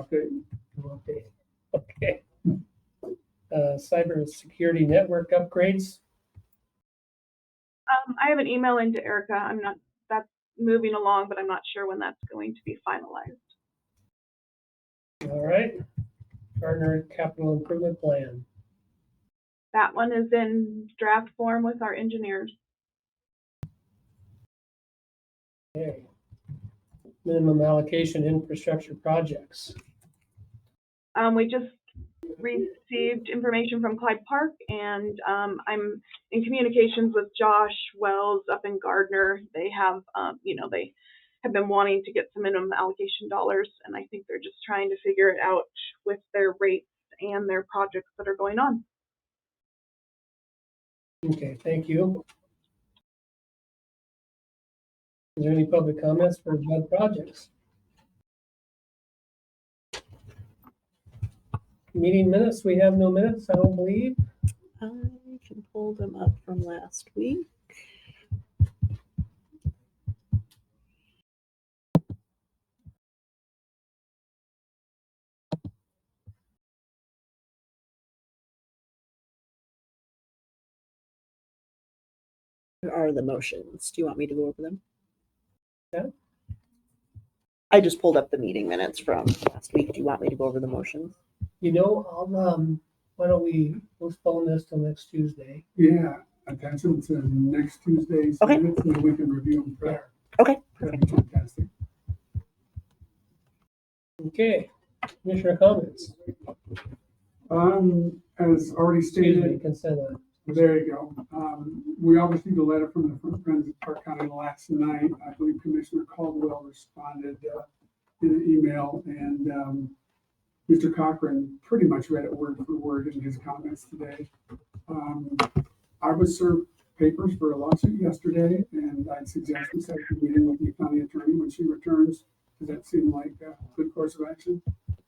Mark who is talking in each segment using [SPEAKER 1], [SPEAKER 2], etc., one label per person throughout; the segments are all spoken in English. [SPEAKER 1] Okay.
[SPEAKER 2] No update. Okay. Uh, cybersecurity network upgrades.
[SPEAKER 3] Um, I have an email into Erica. I'm not, that's moving along, but I'm not sure when that's going to be finalized.
[SPEAKER 2] All right. Gardner Capital Improvement Plan.
[SPEAKER 3] That one is in draft form with our engineers.
[SPEAKER 2] Okay. Minimum allocation infrastructure projects.
[SPEAKER 3] Um, we just received information from Clyde Park and, um, I'm in communications with Josh Wells up in Gardner. They have, um, you know, they have been wanting to get some minimum allocation dollars and I think they're just trying to figure it out with their rates and their projects that are going on.
[SPEAKER 2] Okay, thank you. Is there any public comments for bud projects? Meeting minutes, we have no minutes, I don't believe.
[SPEAKER 4] I can pull them up from last week. There are the motions. Do you want me to go over them?
[SPEAKER 2] Yeah.
[SPEAKER 4] I just pulled up the meeting minutes from last week. Do you want me to go over the motions?
[SPEAKER 2] You know, I'll, um, why don't we postpone this till next Tuesday?
[SPEAKER 1] Yeah, attention to next Tuesday's
[SPEAKER 4] Okay.
[SPEAKER 1] minutes, and we can review them prior.
[SPEAKER 4] Okay,
[SPEAKER 1] That'd be fantastic.
[SPEAKER 2] Okay, commissioner comments,
[SPEAKER 1] Um, as already
[SPEAKER 2] excuse me,
[SPEAKER 1] stated,
[SPEAKER 2] consent, item.
[SPEAKER 1] there you go. Um, we all received a letter from the Friends of Park County last night. I believe Commissioner Caldwell responded, uh, in an email and, um, Mr. Cochran pretty much read it word for word in his comments today. Um, I was served papers for a lawsuit yesterday and I'd suggest we set a meeting with the county attorney when she returns. Does that seem like a good course of action?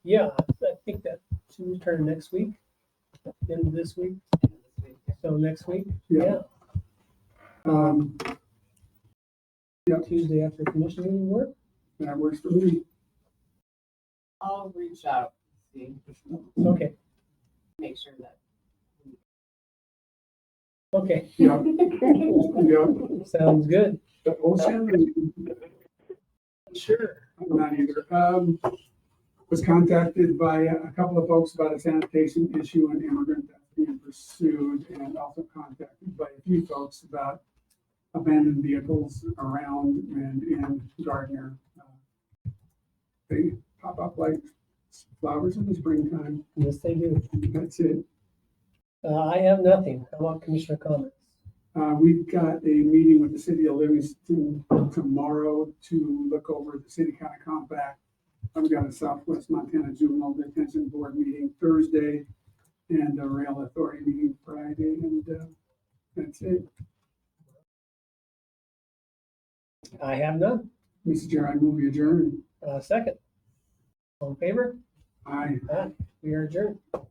[SPEAKER 2] yeah, I think that should return next week, end of this week. So next week,
[SPEAKER 1] Yeah.
[SPEAKER 2] yeah,
[SPEAKER 1] Um,
[SPEAKER 2] Tuesday after commission meeting work.
[SPEAKER 1] that works for me.
[SPEAKER 5] I'll reach out, see,
[SPEAKER 2] Okay,
[SPEAKER 5] make sure that.
[SPEAKER 2] okay,
[SPEAKER 1] Yeah, yeah.
[SPEAKER 2] sounds good.
[SPEAKER 1] But also, I'm
[SPEAKER 2] Sure.
[SPEAKER 1] not either. Um, was contacted by a couple of folks about a sanitation issue and immigrant that's being pursued and also contacted by a few folks about abandoned vehicles around and in Gardner. Uh, They pop up like flowers in the springtime.
[SPEAKER 2] Yes, they do.
[SPEAKER 1] That's it.
[SPEAKER 2] Uh, I have nothing. How about commissioner comments?
[SPEAKER 1] Uh, we've got a meeting with the city of Livingston tomorrow to look over the city county compact. I've got a Southwest Montana Juvenile Detention Board meeting Thursday and a rail authority meeting Friday and, uh, that's it.
[SPEAKER 2] I have none.
[SPEAKER 1] Mrs. Chair, I move adjourned.
[SPEAKER 2] Uh, second. All in favor?
[SPEAKER 1] Aye.
[SPEAKER 2] Aye. We are adjourned.